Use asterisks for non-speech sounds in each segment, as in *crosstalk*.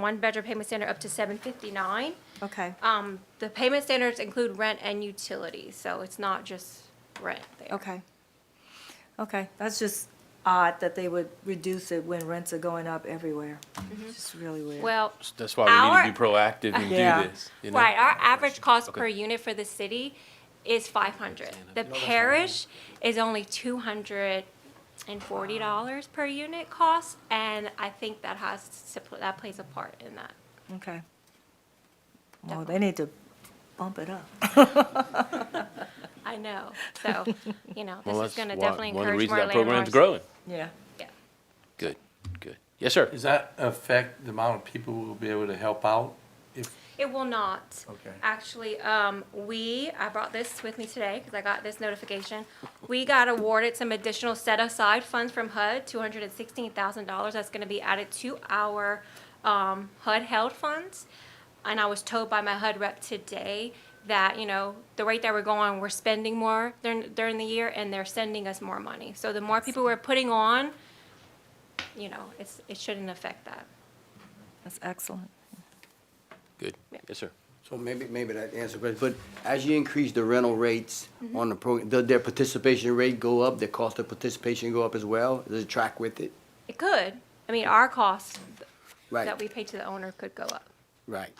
one bedroom payment standard up to seven fifty-nine. Okay, Um, the payment standards include rent and utilities, so it's not just rent there. okay. Okay, that's just odd that they would reduce it when rents are going up everywhere. It's just really weird. Well, That's why we Our- need to be proactive and Yeah. do this. You know? right, our average cost Okay. per unit for the city is five hundred. The parish is only two hundred and forty dollars per unit cost, and I think that has, that plays a part in that. Okay. Well, they need to bump it up. I know, so, you know, Well, this is that's gonna why- definitely one of encourage the reasons more that program's landlords. growing. Yeah. Yeah. Good, good. Yes, sir. Does that affect the amount of people who will be able to help out? If, It will not. Okay. Actually, um, we, I brought this with me today because I got this notification. We got awarded some additional set aside funds from HUD, two hundred and sixteen thousand dollars. That's gonna be added to our, um, HUD held funds. And I was told by my HUD rep today that, you know, the rate that we're going, we're spending more during, during the year and they're sending us more money. So the more people we're putting on, you know, it's, it shouldn't affect that. That's excellent. Good. Yeah. Yes, sir. So maybe, maybe that answers the question, but as you increase the rental rates Mm-hmm. on the program, does their participation rate go up, their cost of participation go up as well? Does it track with it? It could. I mean, our cost that Right, we pay to the owner could go up. right,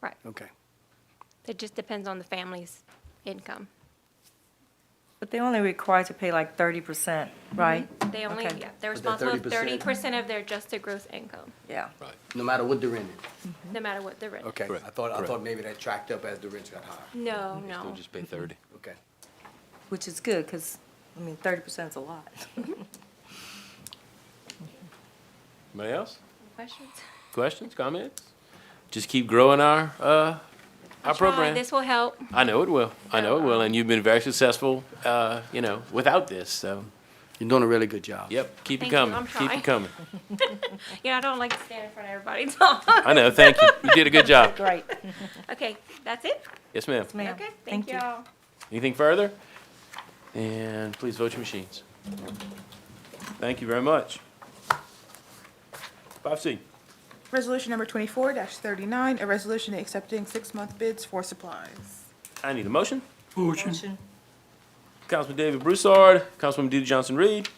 Right. okay. It just depends on the family's income. But they're only required to pay like thirty percent, right? They only, Okay. yeah, they're But that responsible for thirty 30%? percent of their adjusted gross income, Yeah. Right. No matter what the rent is, no matter what the rent. is. okay? Correct, I thought, I correct. thought maybe that tracked up as the rents got higher, No, They'll no. just pay 30. okay? Which is good, because, I mean, thirty percent is a lot. Anybody else? *laughs* Questions? Questions, comments? Just keep growing our uh, our I'll try. program. This Oh. will help. *laughs* I know it will. I know it will. And you've been very successful, uh, you know, without this. So, You're doing a really good job. yep, keep Thank it you. coming. I'm keep trying. it coming. Yeah, I don't like to stand in front of everybody and talk. *laughs* I know. Thank you. You did a good job. Great, Okay, that's it? Yes, ma'am. ma'am. Okay, thank you all. Anything further? And please vote your machines. Thank you very much. 5C. Resolution number twenty-four thirty-nine, a resolution accepting six-month bids for supplies. I need a motion. Motion. Councilman David Broussard, Councilwoman DeeDee Johnson-Reed.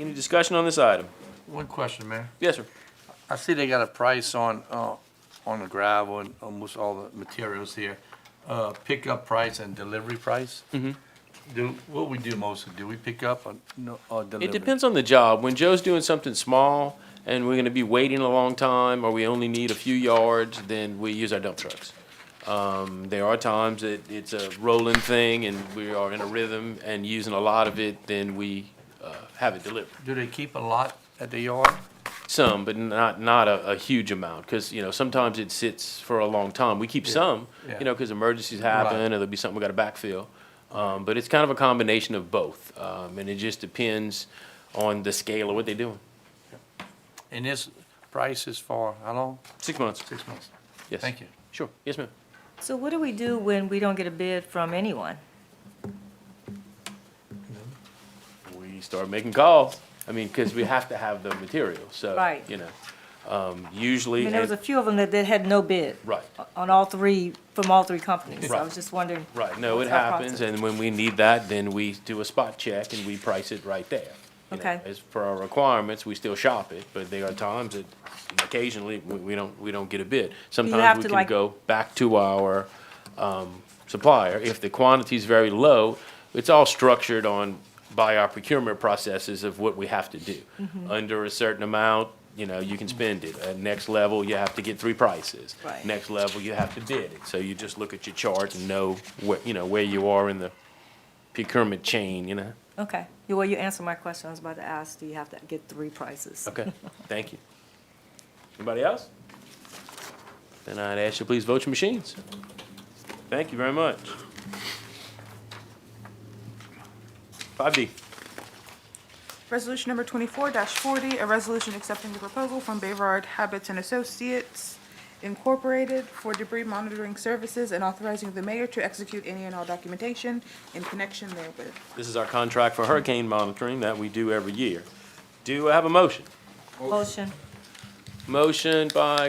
Any discussion on this item? one question, Mayor. Yes, sir. I see they got a price on, uh, on the gravel and almost all the materials here. Uh, pickup price and delivery price? Mm-hmm. Do, what we do mostly, do we pick up or, no, or deliver? It depends on the job. When Joe's doing something small and we're gonna be waiting a long time, or we only need a few yards, then we use our dump trucks. Um, there are times that it's a rolling thing and we are in a rhythm and using a lot of it, then we, uh, have it delivered. Do they keep a lot at the yard? Some, but not, not a, a huge amount, because, you know, sometimes it sits for a long time. We keep some, yeah. you know, because emergencies happen, Right. or there'll be something we gotta backfill. Um, but it's kind of a combination of both, um, and it just depends on the scale of what they're doing. And this price is for how long? Six months, Six months. yes. Thank you. Sure, yes, ma'am. So what do we do when we don't get a bid from anyone? We start making calls, I mean, because we have to have the material, so, Right. you know. Um, I usually, mean, there was a and- few of them that, that had no bid. right. On all three, from all three companies. So I Right. was just wondering. Right, no, it It's our happens, process. and when we need that, then we do a spot check and we price it right there. You know, Okay. As for our requirements, we still shop it, but there are times that occasionally we, we don't, we don't get a bid. have Sometimes we to, can like- go back to our, um, supplier. If the quantity's very low, it's all structured on, by our procurement processes of what we have to do. Under a certain amount, you know, you can spend it. At next level, you have to get three prices Right. next level, you have to bid it. So you just look at your chart and know where, you know, where you are in the procurement chain, you know? Okay, You- well, you answered my question, I was about to ask, do you have to get three prices? Okay, thank you. Anybody else? Then I'd ask you, please vote your machines. Thank you very much. Five D. Resolution number twenty-four forty, a resolution accepting the proposal from Bayard Habits and Associates Incorporated for debris monitoring services and authorizing the mayor to execute any and all documentation in connection therewith. This is our contract for hurricane monitoring that we do every year. Do I have a motion? Motion. Motion by